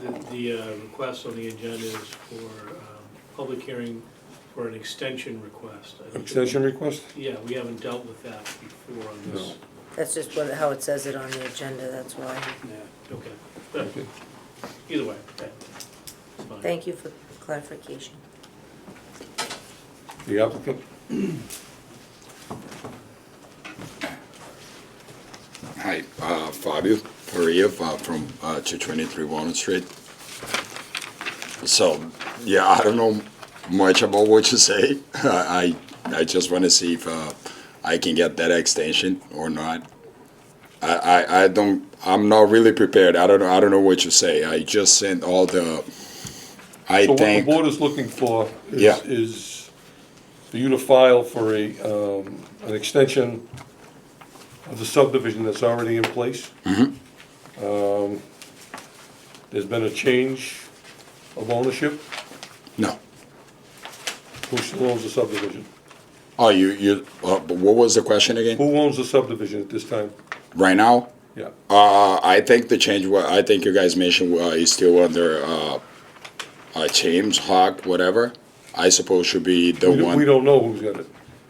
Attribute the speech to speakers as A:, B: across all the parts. A: the- the uh, request on the agenda is for um, public hearing for an extension request. I don't think-
B: Extension request?
A: Yeah, we haven't dealt with that before on this.
C: That's just what, how it says it on the agenda, that's why.
A: Yeah, Okay, But
B: Okay.
A: either way, okay. It's fine.
C: Thank you for clarification.
B: The applicant?
D: Hi, uh, Fabio Faria uh, from uh, 223 Walnut Street. So, yeah, I don't know much about what you say. I I just want to see if uh, I can get that extension or not. I, I, I don't. I'm not really prepared. I don't know. I don't know what you say. I just sent all the. I
B: So what the
D: think.
B: board is looking for is,
D: Yeah.
B: is for you to file for a, um, an extension of the subdivision that's already in place.
D: Mm-hmm.
B: Um, There's been a change of ownership,
D: no.
B: who still owns the subdivision?
D: Oh, you you. Uh, but what was the question again?
B: Who owns the subdivision at this time?
D: Right now.
B: Yeah,
D: Uh, I think the change. wa- I think you guys mentioned uh, is still under uh, uh, James Hawk, whatever. I suppose should be the
B: we don't,
D: one.
B: we don't know who's got it.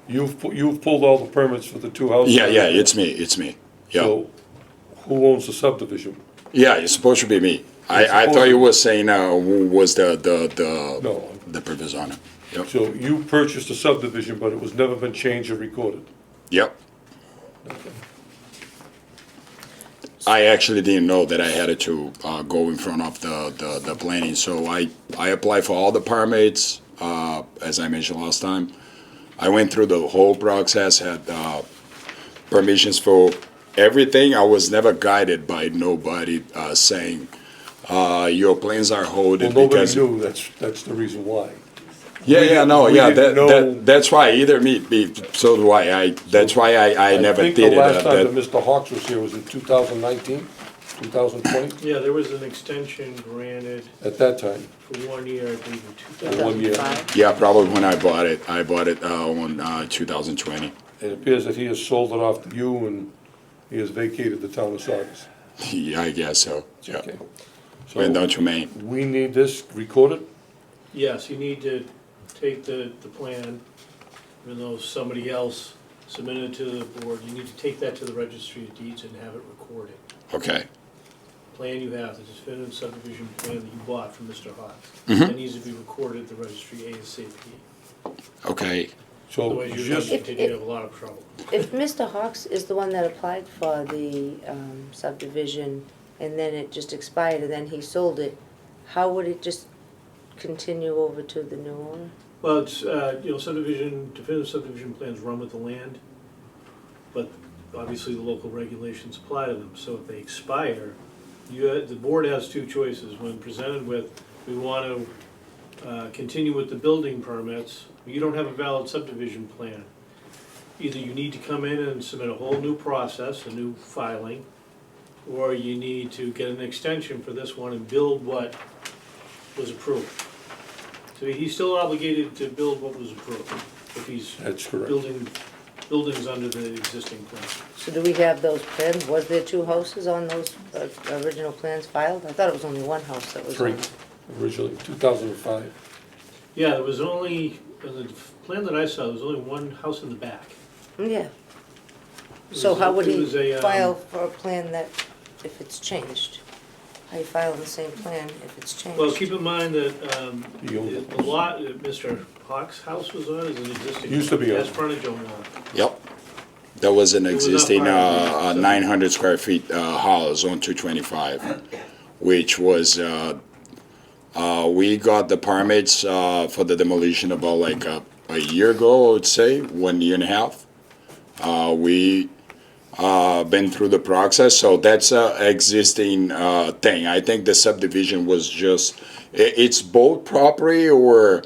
B: You've, pu- you've pulled all the permits for the two houses.
D: yeah, yeah, it's me. It's me. Yeah,
B: So, who owns the subdivision?
D: yeah, it's supposed to be me.
B: It's
D: I, I
B: supposed
D: thought you
B: to-
D: were saying uh, who was the the the
B: No.
D: the previous owner. Yep.
B: So you purchased a subdivision, but it was never been changed or recorded.
D: Yep. I actually didn't know that I had to uh, go in front of the, the, the planning, so I, I applied for all the permits, uh, as I mentioned last time. I went through the whole process, had uh, permissions for everything. I was never guided by nobody uh, saying, uh, your plans are
B: Well,
D: holding
B: nobody
D: because.
B: knew, that's, that's the reason why.
D: Yeah, yeah, no,
B: we
D: yeah, that,
B: didn't know-
D: that, that's why, either me, me- so do I, I, that's why I, I never
B: I
D: did it.
B: think
D: uh,
B: the last
D: that-
B: time that Mr. Hawks was here was in 2019, 2020,
A: Yeah, there was an extension granted
B: at that time.
A: for one year, I believe, in two thousand.
B: One year.
C: 2005.
D: Yeah, probably when I bought it. I bought it uh, on uh, 2020.
B: It appears that he has sold it off to you and he has vacated the town of Saugus.
D: yeah, I guess so. Yeah.
B: Okay. So
D: Went down to Maine.
B: we need this recorded?
A: Yes, you need to take the, the plan, even though somebody else submitted it to the board, you need to take that to the registry of deeds and have it recorded.
D: Okay.
A: Plan you have, the definitive subdivision plan that you bought from Mr. Hawes, that needs to be recorded at the registry ASAP.
D: Okay.
B: So
A: Otherwise, you're
B: just,
A: gonna continue to have a lot of trouble.
C: If Mr. Hawks is the one that applied for the um, subdivision and then it just expired and then he sold it, how would it just continue over to the new owner?
A: Well, it's, uh, you know, subdivision, definitive subdivision plans run with the land, but obviously the local regulations apply to them, so if they expire, you, the board has two choices, when presented with, we want to, uh, continue with the building permits, you don't have a valid subdivision plan. Either you need to come in and submit a whole new process, a new filing, or you need to get an extension for this one and build what was approved. So he's still obligated to build what was approved, if he's
B: that's correct.
A: building, buildings under the existing plan.
C: So do we have those plans? Was there two houses on those uh, original plans filed? I thought it was only one house that was on.
B: Three, originally, 2005.
A: Yeah, there was only, on the plan that I saw, there was only one house in the back.
C: Yeah.
A: It
C: So
A: was a-
C: how would
A: it
C: he
A: was a, um,
C: file for a plan that, if it's changed? How you file the same plan if it's
A: Well,
C: changed?
A: keep in mind that, um,
B: He owned
A: the
B: it.
A: the lot that Mr. Hawk's house was on is an existing.
B: Used to be
A: Has
B: owned.
A: frontage on lot.
D: Yep. That was an
A: It was
D: existing
A: up higher,
D: uh, uh,
A: so-
D: 900 square feet uh, house on 225, which was uh, uh, we got the permits uh, for the demolition about like a, a year ago, I would say, one year and a half. Uh, we uh, been through the process, so that's a existing uh, thing. I think the subdivision was just i it's both property or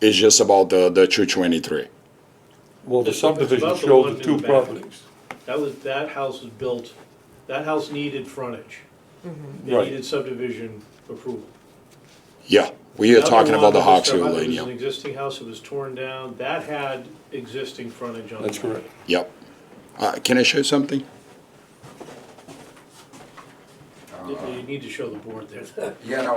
D: it's just about the the 223.
B: Well, the
A: It's about the
B: subdivision
A: one
B: showed
A: in
B: the
A: the
B: two
A: back.
B: properties.
A: That was, that house was built, that house needed frontage. It
B: Right.
A: needed subdivision approval.
D: Yeah, we are
A: Another
D: talking
A: one
D: about the
A: that was
D: Hawksville
A: done,
D: Lane,
A: It was an
D: yeah.
A: existing house, it was torn down, that had existing frontage on it.
B: That's correct.
D: Yep. Uh, can I show you something?
A: they- they need to show the board there.
D: Yeah, no,